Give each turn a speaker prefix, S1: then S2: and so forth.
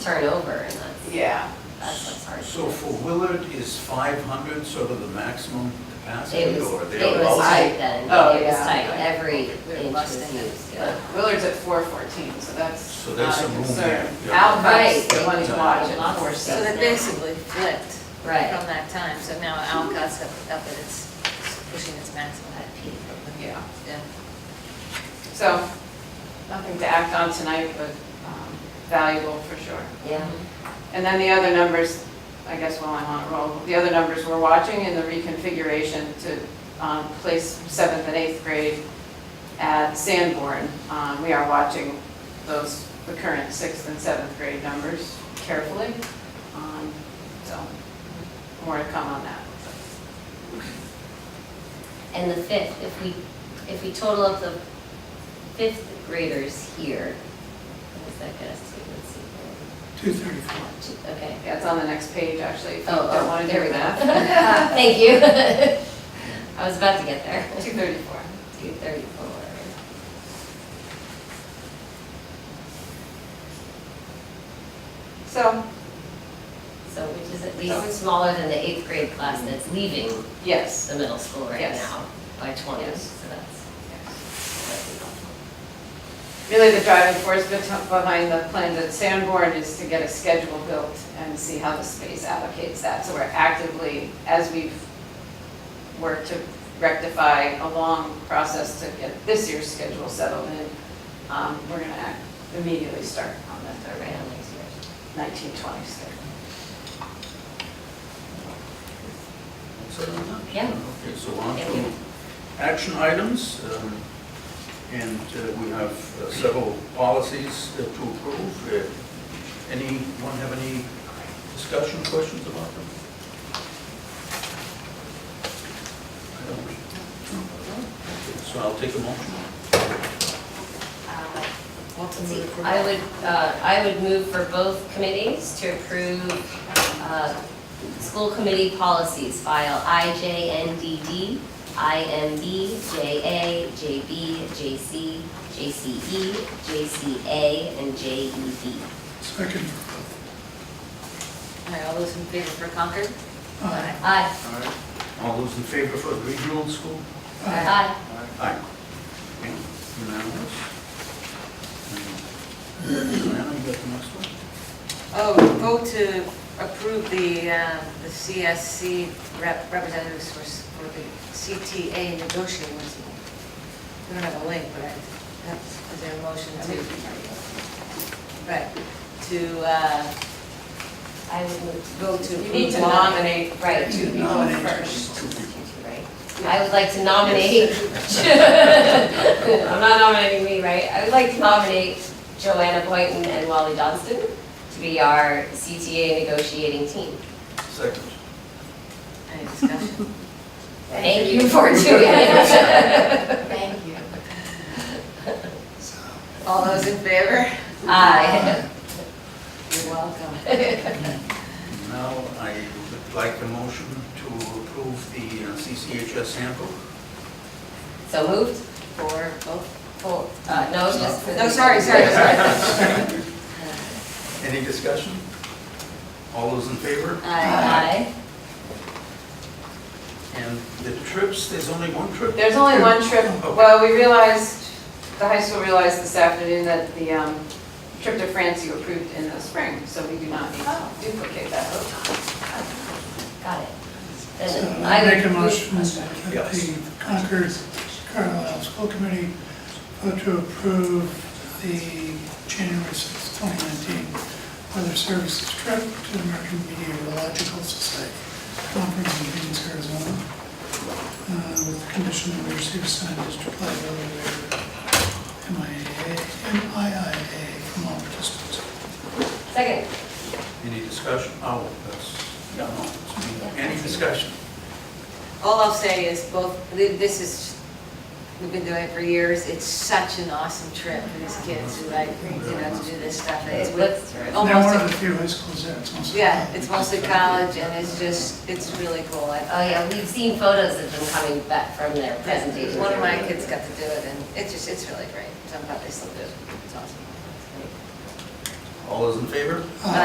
S1: turn over and that's,
S2: Yeah,
S1: that's what's hard.
S3: So for Willard is 500 sort of the maximum
S1: It
S3: capacity
S1: was,
S3: or
S1: it was
S3: thereabouts?
S1: tight then,
S2: Oh,
S1: it was
S2: yeah.
S1: tight, every
S4: They're
S1: inch was
S4: busting it.
S1: used,
S2: but
S1: yeah.
S2: uh, Willard's at four fourteen, so that's
S3: So there's
S2: not a
S3: some room
S2: concern.
S3: there, yeah.
S2: Alcott's the
S1: Right.
S2: one who's watching,
S1: Lots of
S2: four
S1: stuff.
S4: So
S2: seven.
S4: they basically flipped
S1: Right.
S4: from that time, so now Alcott's up, up at its, pushing its maximum at peak.
S2: Yeah,
S4: Yeah.
S2: so nothing to act on tonight, but um, valuable for sure.
S1: Yeah,
S2: And then the other numbers, I guess while I'm on a roll, the other numbers we're watching in the reconfiguration to um, place seventh and eighth grade at Sanborn. Um, We are watching those, the current sixth and seventh grade numbers carefully. Um, So more to come on that.
S1: and the fifth, if we, if we total up the fifth graders here, what does that get us to, let's see.
S5: Two thirty-four.
S1: Two- Okay.
S2: Yeah, it's on the next page, actually, if you
S1: Oh,
S2: don't
S1: oh,
S2: want to
S1: there
S2: do
S1: we go.
S2: math.
S1: Thank you. I was about to get there.
S2: 234.
S1: Two thirty-four.
S2: So,
S1: So which is at least smaller than the eighth grade class that's leaving
S2: yes.
S1: the middle school right
S2: Yes.
S1: now by 20,
S2: Yes.
S1: so that's, that's helpful.
S2: Really, the driving force bet- behind the plans at Sanborn is to get a schedule built and see how the space allocates that. So we're actively, as we've worked to rectify a long process to get this year's schedule settled in, um, we're going to act immediately start on the
S1: All right, on next year.
S2: 1920 schedule.
S3: So we're done.
S1: Yeah.
S3: Okay, so on
S1: Thank you.
S3: to action items. um, And uh, we have uh, several policies uh, to approve. Uh, Anyone have any discussion, questions about them? I don't. Okay, So I'll take a motion.
S1: Uh,
S5: Welcome
S1: let's
S5: to
S1: see.
S5: the court.
S1: I would, uh, I would move for both committees to approve uh, school committee policies file IJNDD, IMB, JA, JB, JC, JCE, JCA, and E JEB.
S5: Second.
S4: All right, all those in favor for Concord?
S5: Aye.
S1: Aye.
S3: All right. All those in favor for the regional school?
S5: Aye.
S1: Aye.
S3: Aye. Okay, Unanimous. Diana, you got the next one?
S4: Oh, vote to approve the, uh, the CSC rep- representatives for, s- for the CTA negotiations. We don't have a link, but I, that's, is there a motion to? Right, to, uh,
S1: I would move to vote to.
S2: You need to
S1: approve one.
S2: nominate
S1: Right.
S2: the two people
S5: Nominate.
S2: first.
S1: Right. I would like to nominate, I'm not nominating me, right? I would like to nominate Joanna Boynton and Wally Johnston to be our CTA negotiating team.
S3: Second.
S4: any discussion?
S1: Thank you for doing it.
S2: Thank you.
S4: All those in favor?
S1: Aye.
S4: You're welcome.
S3: Now, I would like the motion to approve the uh, CCHS sample.
S1: So moved?
S4: For both?
S1: Full- Uh, no, just. for the-
S4: No, sorry, sorry, sorry.
S3: Any discussion? All those in favor?
S1: Aye.
S3: And the uh, trips, there's only one trip?
S2: There's only one trip,
S3: Okay.
S2: well, we realized, the high school realized this afternoon that the um, trip to France you approved in the spring, so we do not need to duplicate that vote.
S1: Got it.
S5: So
S1: Then I
S5: I
S1: would
S5: make a
S1: move-
S5: motion that the Concord Carlisle School Committee vote to approve the January sixth, twenty nineteen weather services trip to the American Meteorological Society Conference in Phoenix, Arizona, uh, with the condition that we receive signed district liability waiver, MIA, MIIA from all participants.
S1: Second.
S3: Any discussion? Oh, that's, yeah, no, it's me. Any discussion?
S4: All I'll say is both, this is, we've been doing it for years, it's such an awesome trip for these kids who like, you know, to do this stuff. It's with,
S1: Let's-
S4: Oh.
S5: They're one of
S4: Almost
S5: the few high schools there, it's mostly.
S4: yeah, it's mostly college and it's just, it's really cool. I- uh,
S1: Oh, yeah, we've seen photos of them coming back from their presentations.
S4: One of my kids got to do it and it's just, it's really great. So I'm glad they still do it. It's awesome.
S5: Uh,
S3: All those in favor?